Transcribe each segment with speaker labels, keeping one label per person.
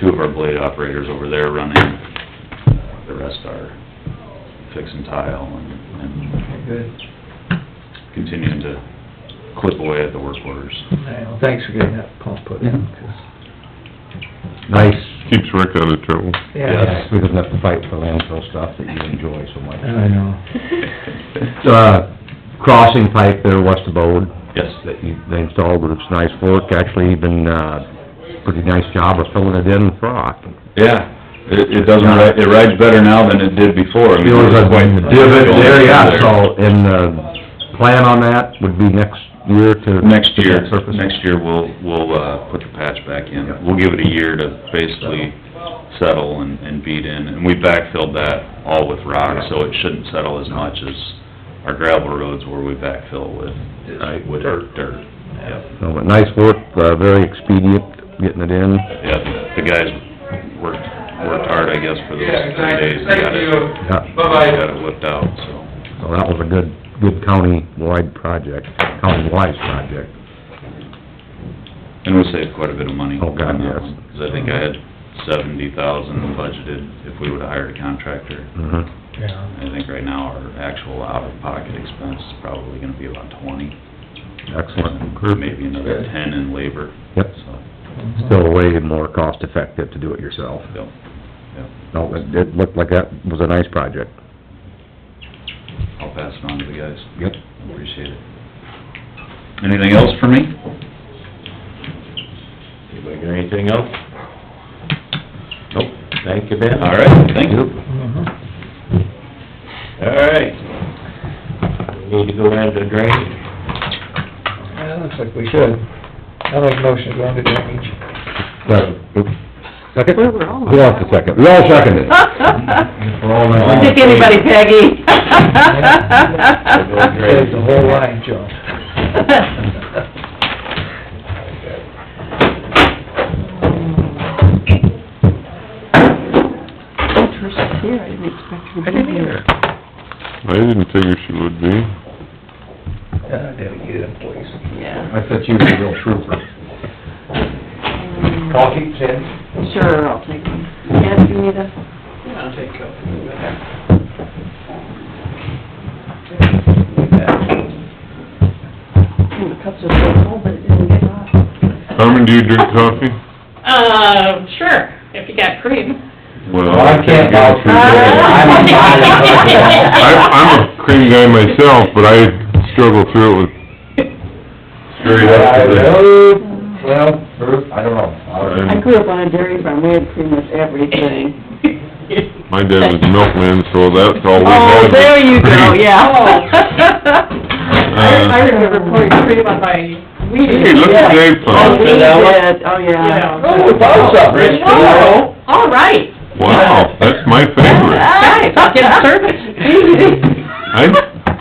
Speaker 1: two of our blade operators over there running, uh, the rest are fixing tile and, and
Speaker 2: Good.
Speaker 1: continuing to clip away at the work orders.
Speaker 2: Well, Thanks for getting that pump put in. 'cause-
Speaker 3: Nice.
Speaker 4: Keeps Rick out of trouble.
Speaker 2: Yeah,
Speaker 3: We don't have to fight for landfill stuff that you enjoy so much.
Speaker 2: I know.
Speaker 3: Uh, crossing pipe there west of Bode.
Speaker 1: Yes.
Speaker 3: That you, they installed, but it's nice work, actually, even, uh, pretty nice job of filling it in with rock.
Speaker 1: Yeah, it, it doesn't, ri- it rides better now than it did before. I mean,
Speaker 3: It was a
Speaker 1: quite-
Speaker 3: divot there, yeah, so, and, uh, plan on that would be next year to...
Speaker 1: Next year,
Speaker 3: to that surface.
Speaker 1: next year, we'll, we'll, uh, put the patch back in. We'll give it a year to basically settle and, and beat in. And we backfilled that all with rock, so it shouldn't settle as much as our gravel roads where we backfill with, right, with dirt, dirt. Yep,
Speaker 3: So, but nice work, uh, very expedient, getting it in.
Speaker 1: yep. The guys worked, worked hard, I guess, for those three days. They got it-
Speaker 3: Yeah.
Speaker 1: They got it whipped out, so.
Speaker 3: So that was a good, good county-wide project, county-wise project.
Speaker 1: And we saved quite a bit of money.
Speaker 3: Oh, God,
Speaker 1: on that
Speaker 3: yes.
Speaker 1: one, Cause I think I had seventy thousand budgeted if we would've hired a contractor.
Speaker 3: Mhm.
Speaker 2: Yeah.
Speaker 1: I think right now our actual out-of-pocket expense is probably gonna be about twenty.
Speaker 3: Excellent.
Speaker 1: Maybe another ten in labor.
Speaker 3: Yep.
Speaker 1: So,
Speaker 3: Still way more cost-effective to do it yourself.
Speaker 1: yep, yep.
Speaker 3: No, it, it looked like that was a nice project.
Speaker 1: I'll pass it on to the guys.
Speaker 3: Yep.
Speaker 1: Appreciate it. Anything else for me?
Speaker 5: Anybody got anything else?
Speaker 1: Nope.
Speaker 5: Thank you, Ben.
Speaker 1: All right, thank you.
Speaker 2: Mhm.
Speaker 5: All right. We Need to go into drainage.
Speaker 2: Yeah, looks like we should. I like motion going to drainage.
Speaker 3: Second?
Speaker 6: Where were all of us?
Speaker 3: Who wants the second? We all seconded it. We're all in.
Speaker 6: Don't Pick anybody, Peggy.
Speaker 2: Saves the whole line, Joe.
Speaker 6: Trish here, I didn't expect her to be here.
Speaker 4: I didn't figure she would be.
Speaker 2: Yeah, I did get it, please.
Speaker 6: Yeah.
Speaker 3: I thought you were a real trooper.
Speaker 6: Um,
Speaker 2: Coffee, Sandy?
Speaker 6: Sure, I'll take one. Yes, you need a...
Speaker 2: I'll take coffee.
Speaker 6: And the cups are so full, but it didn't get hot.
Speaker 4: Carmen, do you drink coffee?
Speaker 7: Uh, sure, if you got cream.
Speaker 4: Well,
Speaker 2: I can't vouch for
Speaker 6: I'm a
Speaker 4: I'm, I'm a cream guy myself, but I struggle through it with straight up to the...
Speaker 2: Well, I don't
Speaker 4: I-
Speaker 6: I grew up on a dairy farm, we had pretty much everything.
Speaker 4: My dad was a milkman, so that's all we had.
Speaker 6: Oh, there you go,
Speaker 4: Cream.
Speaker 6: yeah. Uh,
Speaker 7: I remember pouring cream on my weed.
Speaker 4: Hey, look at Dave
Speaker 6: Oh,
Speaker 4: Pond.
Speaker 6: we did, oh, yeah. Oh.
Speaker 7: Yeah.
Speaker 2: we bought some, Rich,
Speaker 6: Whoa, all right.
Speaker 4: Wow, that's my favorite.
Speaker 6: Nice, get service.
Speaker 4: I,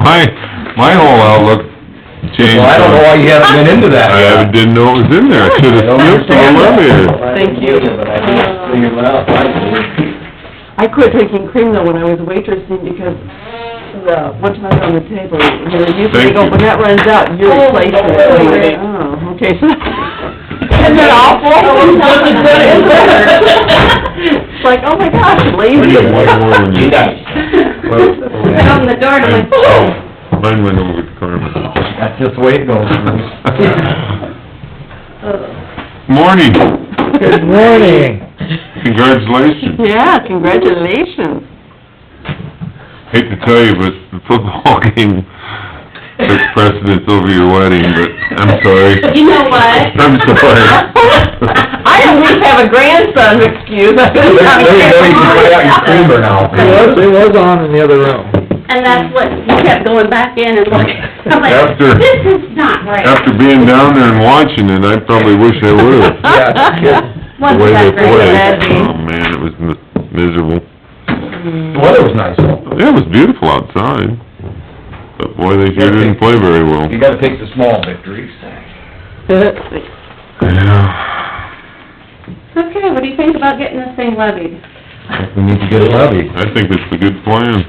Speaker 4: my, my whole outlook changed.
Speaker 3: Well, I don't know why you haven't been into that.
Speaker 4: I didn't know it was in there. I should've snipped it earlier.
Speaker 6: Thank you.
Speaker 5: But I think it's cleared out.
Speaker 6: I quit drinking cream though when I was waitressing because the, what's not on the table, you know, you
Speaker 4: Thank
Speaker 6: think, oh,
Speaker 4: you.
Speaker 6: when that runs out, you replace it. Oh, okay, so, Oh, isn't that awful?
Speaker 7: Doesn't do it.
Speaker 6: It's like, oh my gosh,
Speaker 4: I
Speaker 6: lazy.
Speaker 4: got one more than you.
Speaker 6: Put on the door and I'm like, oh.
Speaker 4: I- Mine went over to Carmen.
Speaker 3: That's just the way it goes.
Speaker 4: Morning. oh.
Speaker 2: Good morning.
Speaker 4: Congratulations.
Speaker 6: Yeah, congratulations.
Speaker 4: Hate to tell you, but the football game took precedence over your wedding, but I'm sorry.
Speaker 6: You know what?
Speaker 4: I'm sorry.
Speaker 6: I at least have a grandson excuse.
Speaker 3: There you go, you can try out your creamer now.
Speaker 2: It was, it was on in the other room.
Speaker 8: And that's what, you kept going back in and looking, I'm like,
Speaker 4: After-
Speaker 8: this is not right.
Speaker 4: After being down there and watching it, I probably wish I would've. The
Speaker 8: Once
Speaker 4: way they
Speaker 8: that's
Speaker 4: played,
Speaker 8: right.
Speaker 4: oh man, it was mi- miserable.
Speaker 6: Mm.
Speaker 3: The weather was nice though.
Speaker 4: Yeah, it was beautiful outside, but boy, they sure didn't play very well.
Speaker 3: You gotta take the small victories.
Speaker 4: Yeah,
Speaker 8: Okay, what do you think about getting this thing levied?
Speaker 3: We need to get it levied.
Speaker 4: I think it's a good plan.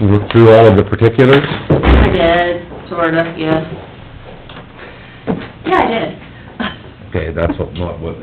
Speaker 3: You looked through all of the particulars?
Speaker 8: I did, sort of, yeah. Yeah, I did.
Speaker 3: Okay, that's what, what